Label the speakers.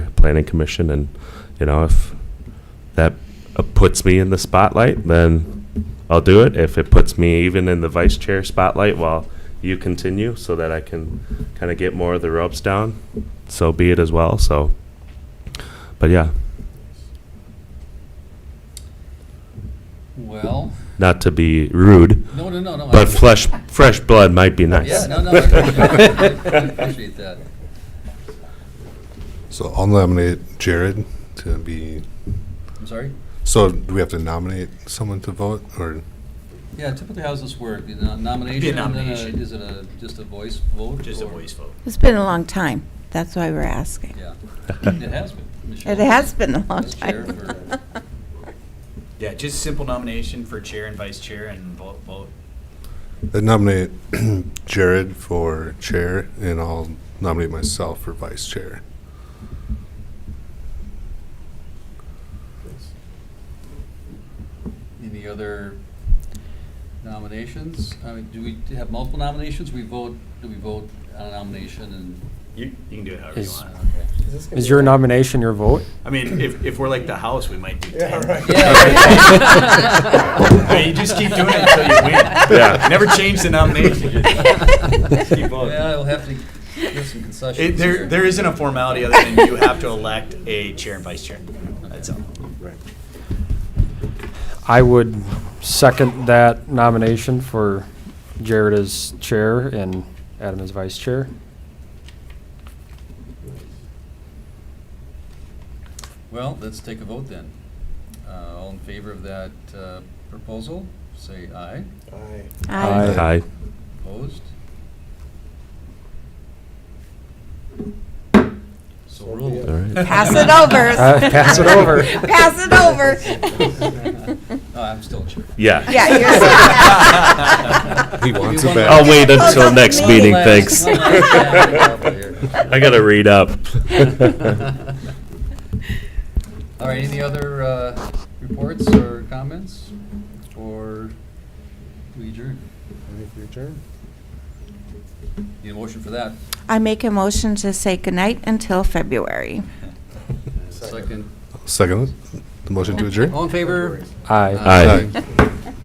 Speaker 1: planning commission, and, you know, if that uh, puts me in the spotlight, then I'll do it. If it puts me even in the vice chair spotlight while you continue, so that I can kind of get more of the ropes down, so be it as well, so. But yeah,
Speaker 2: Well,
Speaker 1: not to be rude,
Speaker 2: no, no, no, no. I-
Speaker 1: but flesh, fresh blood might be nice.
Speaker 2: Yeah, no, no, I appreciate that. I appreciate that.
Speaker 3: So I'll nominate Jared to be,
Speaker 2: I'm sorry?
Speaker 3: so do we have to nominate someone to vote or?
Speaker 2: Yeah, typically how's this work? You know, Nomination? and then a-
Speaker 4: nomination.
Speaker 2: Is it a, just a voice vote?
Speaker 4: Just a
Speaker 2: or-
Speaker 4: voice vote.
Speaker 5: It's been a long time. That's why we're asking.
Speaker 2: Yeah, it has been. Michelle.
Speaker 5: It has been a long
Speaker 2: Vice chair for-
Speaker 5: time.
Speaker 4: Yeah, just simple nomination for chair and vice chair and vote, vote.
Speaker 3: I uh, nominate Jared for chair and I'll nominate myself for vice chair.
Speaker 2: Any other nominations? I mean, do we have multiple nominations? We vote, do we vote on a nomination and?
Speaker 4: You, you can do it however you
Speaker 6: Is-
Speaker 4: want.
Speaker 2: okay.
Speaker 6: Is your nomination your vote?
Speaker 4: I mean, if, if we're like the house, we might do ten.
Speaker 2: Yeah.
Speaker 4: I mean, you just keep doing it until you win.
Speaker 1: Yeah.
Speaker 4: Never change the nomination. Just keep voting.
Speaker 2: Yeah, we'll have to give some concessions
Speaker 4: It, there,
Speaker 2: here.
Speaker 4: there isn't a formality other than you have to elect a chair and vice chair. That's all.
Speaker 6: I would second that nomination for Jared as chair and Adam as vice chair.
Speaker 2: Well, let's take a vote then. Uh, All in favor of that uh, proposal, say aye.
Speaker 5: Aye.
Speaker 1: Aye.
Speaker 2: Opposed? So ruled.
Speaker 1: All right.
Speaker 5: Pass it over.
Speaker 6: Uh, pass it over.
Speaker 5: Pass it over.
Speaker 2: Oh, I'm still chair.
Speaker 1: Yeah.
Speaker 5: Yeah,
Speaker 3: He
Speaker 5: you're
Speaker 3: wants it
Speaker 1: I'll
Speaker 3: back.
Speaker 1: wait until
Speaker 5: Oh,
Speaker 1: next
Speaker 5: that's
Speaker 1: meeting,
Speaker 2: me.
Speaker 1: thanks.
Speaker 2: One last- one last-
Speaker 1: I gotta read up.
Speaker 2: All right, any other uh, reports or comments? Or we adjourn? Need a motion for that?
Speaker 5: I make a motion to say goodnight until February.
Speaker 2: Second.
Speaker 3: Second, the motion to adjourn?
Speaker 2: All in favor?
Speaker 6: Aye.
Speaker 1: Aye.
Speaker 3: Aye.